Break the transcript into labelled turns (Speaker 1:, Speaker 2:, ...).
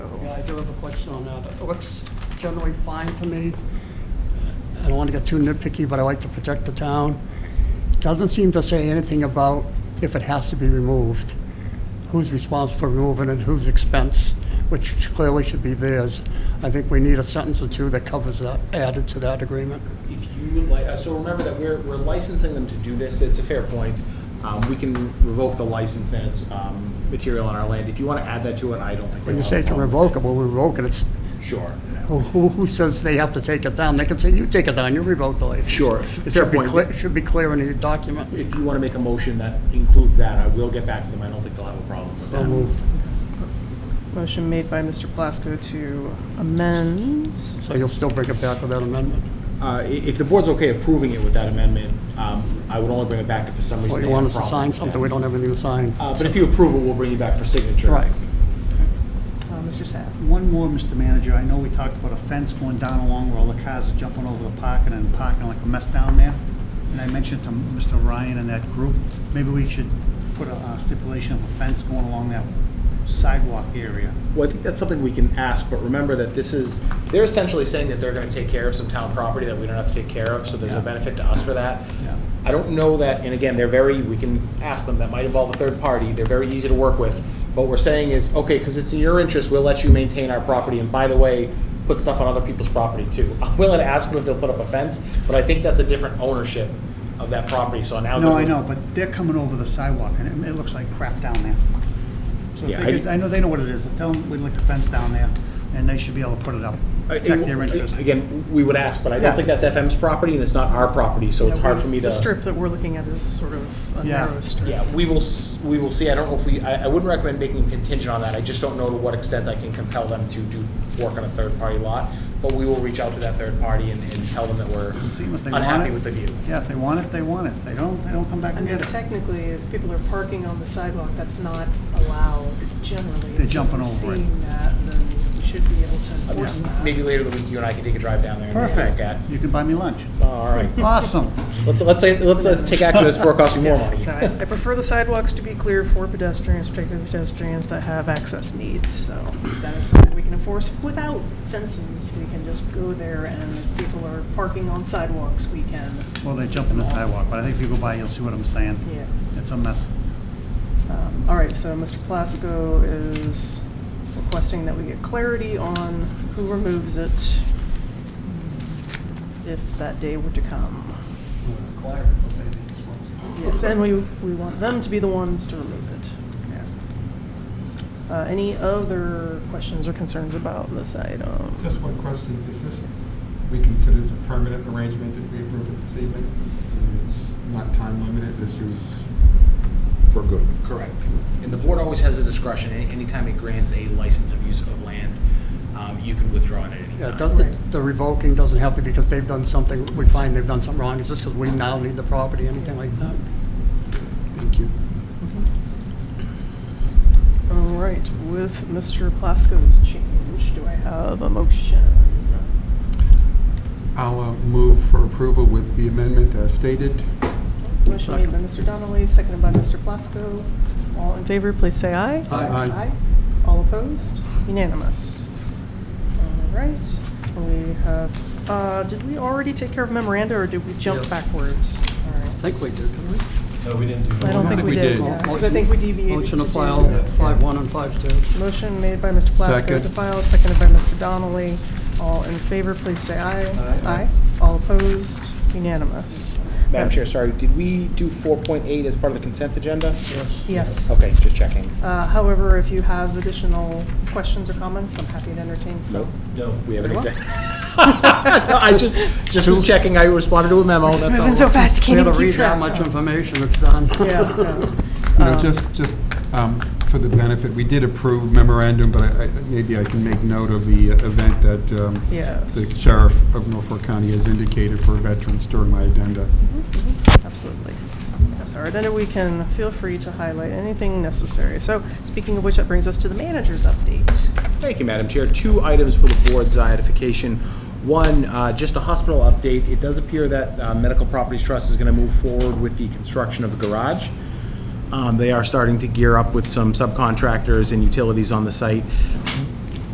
Speaker 1: do have a question on that. It looks generally fine to me. I don't want to get too nitpicky, but I like to protect the town. Doesn't seem to say anything about if it has to be removed, who's responsible for removing it, whose expense, which clearly should be theirs. I think we need a sentence or two that covers that, added to that agreement.
Speaker 2: If you would like, uh, so remember that we're, we're licensing them to do this, it's a fair point. Um, we can revoke the license, then it's, um, material on our land. If you wanna add that to it, I don't think.
Speaker 1: When you say it's revocable, we revoke it, it's,
Speaker 2: Sure,
Speaker 1: who, who who says they have to take it down? They can say, you take it down, you revoke the license.
Speaker 2: Sure,
Speaker 1: It
Speaker 2: fair
Speaker 1: should be
Speaker 2: point.
Speaker 1: clear, should be clear in the document.
Speaker 2: if you wanna make a motion that includes that, I will get back to them, I don't think they'll have a problem with
Speaker 1: So
Speaker 2: that.
Speaker 1: moved.
Speaker 3: Motion made by Mr. Plasko to amend.
Speaker 1: So you'll still bring it back with that amendment?
Speaker 2: Uh, i- if the board's okay approving it with that amendment, um, I would only bring it back if for some
Speaker 1: Or
Speaker 2: reason
Speaker 1: you
Speaker 2: they have
Speaker 1: want
Speaker 2: a
Speaker 1: us to
Speaker 2: problem
Speaker 1: sign
Speaker 2: with that.
Speaker 1: something, we don't have anything to sign?
Speaker 2: Uh, but if you approve it, we'll bring you back for signature.
Speaker 1: Right.
Speaker 3: Uh, Mr. Sapp.
Speaker 4: One more, Mr. Manager, I know we talked about a fence going down along where all the cars are jumping over the parking and parking like a mess down there. And I mentioned to Mr. Ryan and that group, maybe we should put a uh, stipulation of a fence going along that sidewalk area.
Speaker 2: Well, I think that's something we can ask, but remember that this is, they're essentially saying that they're gonna take care of some town property that we don't have to take care of, so there's a
Speaker 4: Yeah.
Speaker 2: benefit to us for that.
Speaker 4: Yeah.
Speaker 2: I don't know that, and again, they're very, we can ask them, that might involve a third party, they're very easy to work with. What we're saying is, okay, because it's in your interest, we'll let you maintain our property, and by the way, put stuff on other people's property too. I'm willing to ask them if they'll put up a fence, but I think that's a different ownership of that property, so now.
Speaker 4: No,
Speaker 2: that
Speaker 4: I
Speaker 2: we-
Speaker 4: know, but they're coming over the sidewalk and it, it looks like crap down there. So if
Speaker 2: Yeah,
Speaker 4: they
Speaker 2: I-
Speaker 4: could, I know they know what it is, tell them we'd like the fence down there and they should be able to put it up,
Speaker 2: I-
Speaker 4: protect their interest.
Speaker 2: Again, we would ask, but I don't
Speaker 4: Yeah.
Speaker 2: think that's FM's property, and it's not our property, so it's hard for me to.
Speaker 3: The strip that we're looking at is sort of a
Speaker 4: Yeah.
Speaker 3: narrow strip.
Speaker 2: Yeah, we will, s- we will see. I don't know if we, I, I wouldn't recommend making contingent on that. I just don't know to what extent I can compel them to do work on a third-party lot. But we will reach out to that third party and, and tell them that we're
Speaker 4: See if they want
Speaker 2: unhappy
Speaker 4: it.
Speaker 2: with the view.
Speaker 4: Yeah, if they want it, they want it. If they don't, they don't come back
Speaker 3: I
Speaker 4: and
Speaker 3: mean,
Speaker 4: get it.
Speaker 3: technically, if people are parking on the sidewalk, that's not allowed generally.
Speaker 4: They're jumping
Speaker 3: If
Speaker 4: over
Speaker 3: we're
Speaker 4: it.
Speaker 3: Seeing that, then we should be able to
Speaker 2: Uh,
Speaker 3: enforce that.
Speaker 2: Maybe later in the week, you and I can take a drive down there and take a look at.
Speaker 4: Perfect. You can buy me lunch.
Speaker 2: All right.
Speaker 4: Awesome.
Speaker 2: Let's, let's, say- let's uh, take action. This before it costs me more money.
Speaker 3: No, I I prefer the sidewalks to be clear for pedestrians, particularly pedestrians that have access needs, so that is something we can enforce without fences. We can just go there, and if people are parking on sidewalks, we can,
Speaker 4: Well, they jump in the sidewalk, but I think if you go by, you'll see what I'm saying.
Speaker 3: yeah.
Speaker 4: It's a mess.
Speaker 3: Um, All right, so Mr. Plasko is requesting that we get clarity on who removes it if that day were to come. Yes, and we, we want them to be the ones to remove it.
Speaker 4: Yeah.
Speaker 3: Uh, Any other questions or concerns about this item?
Speaker 5: Just one question, is this, we consider this a permanent arrangement if we approve it this evening? It's not time limited, this is for good.
Speaker 2: Correct. And the board always has the discretion, any- anytime it grants a license of use of land, um, you can withdraw it at any
Speaker 1: Yeah,
Speaker 2: time.
Speaker 1: it doesn't- the revoking doesn't have to be because they've done something, we find they've done something wrong, it's just because we now need the property, anything like that.
Speaker 5: Thank you.
Speaker 3: All right, with Mr. Plasko's change, do I have a motion?
Speaker 5: I'll uh, move for approval with the amendment as stated.
Speaker 3: Motion made by Mr. Donnelly, seconded by Mr. Plasko. All in favor, please say aye.
Speaker 5: Aye.
Speaker 3: Aye. All opposed? Unanimous. All right, we have, uh, did we already take care of memoranda, or did we jump
Speaker 1: Yes.
Speaker 3: backwards? All
Speaker 1: I
Speaker 3: right.
Speaker 1: think we did, didn't we?
Speaker 6: No, we didn't do that.
Speaker 3: I don't think we did, yeah, 'cause I think we deviated
Speaker 1: Motion to
Speaker 3: do-
Speaker 1: file five one and five two.
Speaker 3: Motion made by Mr. Plasko
Speaker 5: Second.
Speaker 3: to file, seconded by Mr. Donnelly. All in favor, please say aye. Aye. All opposed? Unanimous.
Speaker 2: Madam Chair, sorry, did we do 4.8 as part of the consent agenda?
Speaker 1: Yes.
Speaker 3: Yes.
Speaker 2: Okay, just checking.
Speaker 3: Uh, However, if you have additional questions or comments, I'm happy to entertain some.
Speaker 6: No,
Speaker 2: We have an
Speaker 3: Well.
Speaker 2: exec. No, I just, just was checking, I responded to a memo, that's
Speaker 3: It's
Speaker 2: all.
Speaker 3: moving so fast, you
Speaker 1: We
Speaker 3: can't
Speaker 1: had to
Speaker 3: even keep
Speaker 1: read how
Speaker 3: track.
Speaker 1: much information it's done.
Speaker 3: Yeah, no.
Speaker 5: You know,
Speaker 3: Um,
Speaker 5: just, just um, for the benefit, we did approve memorandum, but I, I- maybe I can make note of the uh, event that um, the
Speaker 3: Yes,
Speaker 5: sheriff of Norfolk County has indicated for veterans during my agenda.
Speaker 3: absolutely. Yes, our agenda, we can feel free to highlight anything necessary. So speaking of which, that brings us to the manager's update.
Speaker 2: Thank you, Madam Chair. Two items for the board's identification. One, uh, just a hospital update. It does appear that uh, Medical Properties Trust is going to move forward with the construction of a garage. Um, They are starting to gear up with some subcontractors and utilities on the site.